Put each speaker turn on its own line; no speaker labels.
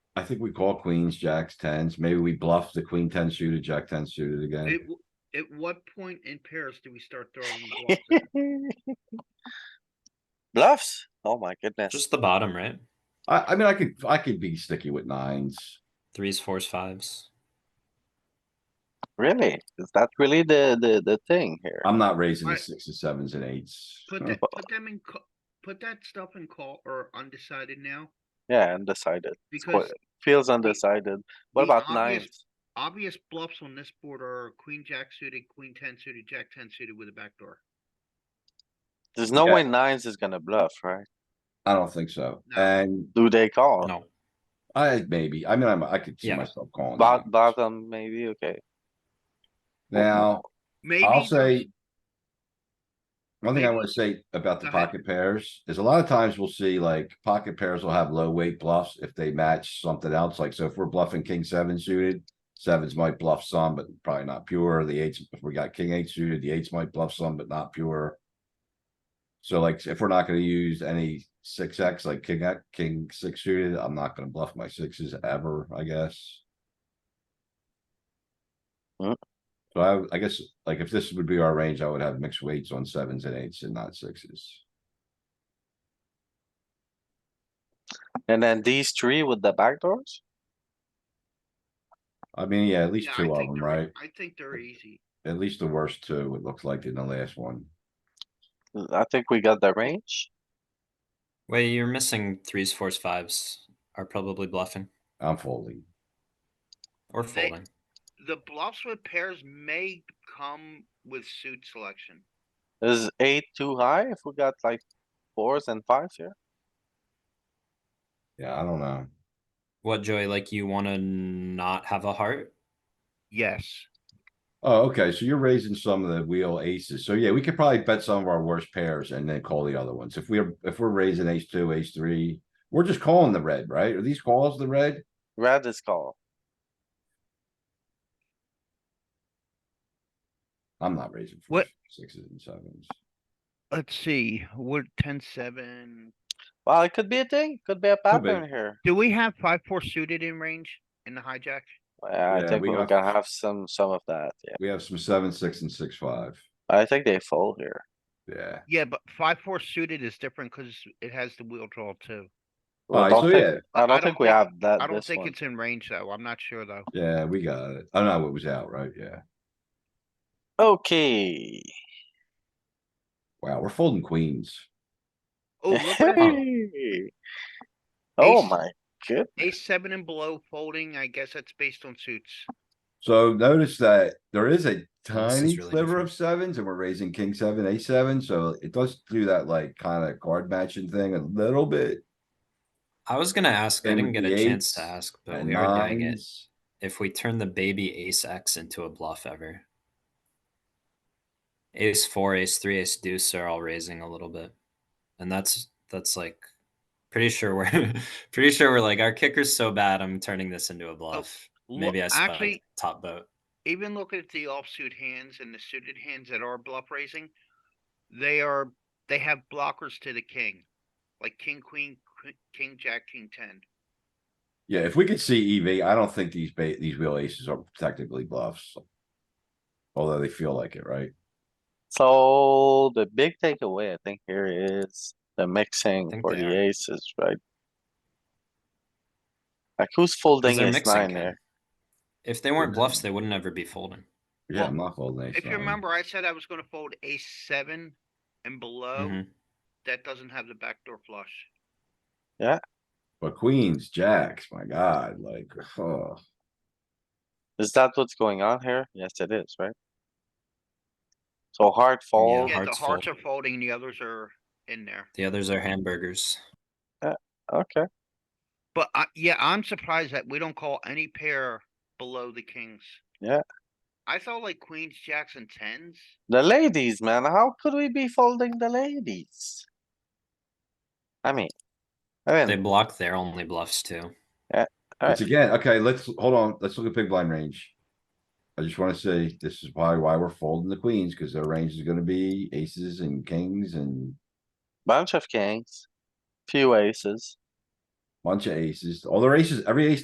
I think we call queens, jacks, tens. Maybe we bluff the queen ten suited, jack ten suited again.
At, w- at what point in pairs do we start throwing bluffs? in?
Bluffs? Oh my goodness.
Just the bottom, right?
I, I mean, I could, I could be sticky with nines.
Threes, fours, fives.
Really? Is that really the, the, the thing here?
I'm not raising the
Alright.
sixes, sevens and eights.
Put that, put them in, ca- put that stuff in call or undecided now,
Yeah, undecided. It's quite-
because
Feels undecided. What
the
about
obvious-
nines?
obvious bluffs on this board are queen, jack suited, queen ten suited, jack ten suited with a backdoor.
There's no
Yeah.
way nines is gonna bluff, right?
I don't think so.
No.
And
Do they
Oh.
call?
No,
I, maybe, I mean, I'm, I could see
Yeah.
myself calling.
Bo-
nines.
Bottom, maybe, okay.
Now,
Maybe.
I'll
there's-
say. One thing I
Maybe-
wanna say about the
Go ahead.
pocket pairs is a lot of times we'll see like pocket pairs will have low weight bluffs if they match something else. Like, so if we're bluffing king seven suited. Sevens might bluff some, but probably not pure. The eights, if we got king eight suited, the eights might bluff some, but not pure. So like, if we're not gonna use any six X like king, X- king six suited, I'm not gonna bluff my sixes ever, I guess. So I, I guess, like, if this would be our range, I would have mixed weights on sevens and eights and not sixes.
And then these three with the backdoors?
I mean, yeah, at least
Yeah, I
two of
think
them,
they're- e,
right?
I think they're easy.
At least the worst two, it looked like in the last one.
I think we got the range.
wait, you're missing threes, fours, fives are probably bluffing
I'm folding.
or
They-
folding.
The bluffs with pairs may come with suit selection.
Is eight too high if we got like fours and fives here?
Yeah, I don't know.
What, Joey? Like you want to not have a heart?
Yes.
Oh, okay, so you're raising some of the wheel aces. So yeah, we could probably bet some of our worst pairs and then call the other ones. If we're, if we're raising ace two, ace three, we're just calling the red, right? Are these calls the red?
Red is call.
I'm not raising. fours,
What-
Sixes and sevens.
Let's see, what, ten, seven?
Well, it could be a thing, could be a
Could be.
pattern here.
Do we have five, four suited in range in the hijack?
Yeah, I
Yeah,
think
we
we're
got-
gonna have some, some of that, yeah.
We have some seven, six and six, five.
I think they fold here.
Yeah.
Yeah, but five, four suited is different because it has the wheel draw too.
Well,
Alright,
I
so
don't think-
yeah.
I
I
don't think
don't
we
think-
have
I
that,
don't
Uh, this
think
one.
it's in range though. I'm not sure though.
Yeah, we got it. I know it was out, right? Yeah.
Okay.
Wow, we're folding queens.
Oh, look at that.
Oh
Ace-
my good,
ace seven and below folding. I guess that's based on suits.
So notice that there is a
is
tiny
really
sliver of sevens and we're raising king seven, ace seven, so it does do that like kinda card matching thing a little bit.
I was gonna ask. I
Same
didn't
with
get
the
a chance to
eights
ask, but
And
we are doing it.
nines.
If we turn the baby ace X into a bluff ever, ace four, ace three, ace deuce are all raising a little bit, and that's that's like pretty sure we're pretty sure we're like our kicker's so bad. I'm turning this into
Oh.
a bluff.
Lo-
Maybe I spiked
Actually,
top boat.
even looking at the offsuit hands and the suited hands that are bluff raising, they are, they have blockers to the king. Like king, queen, qu- king, jack, king ten.
Yeah, if we could see EV, I don't think these ba- these real aces are technically bluffs. Although they feel like it, right?
so the big takeaway I think here is the mixing
think
for
they
the
are.
aces, right? Like who's
'Cause
folding
they're
ace
mixing,
nine
Ken.
there?
If they weren't
Mhm.
bluffs, they would not ever be folding.
Yeah,
Well,
I'm not folding ace
If you
nine.
remember, I said I was gonna fold ace seven and below
Mhm.
that doesn't have the backdoor flush.
But queens, jacks, my god, like, oh,
Is that what's going on here? Yes, it is, right? So hard fold,
Yeah, the
hearts
hearts are
fold.
folding, the others are in there.
The others are hamburgers.
okay,
But I, yeah, I'm surprised that we don't call any pair below the kings.
Yeah.
I thought like queens, jacks and tens.
the ladies, man, how could we be folding the ladies? I mean, I
They
mean,
block their only bluffs too.
Alright.
It's again, okay, let's, hold on, let's look at big blind range. I just wanna say, this is probably why we're folding the queens, cause their range is gonna be aces and kings and
bunch of kings, few aces.
bunch of aces. All their aces, every ace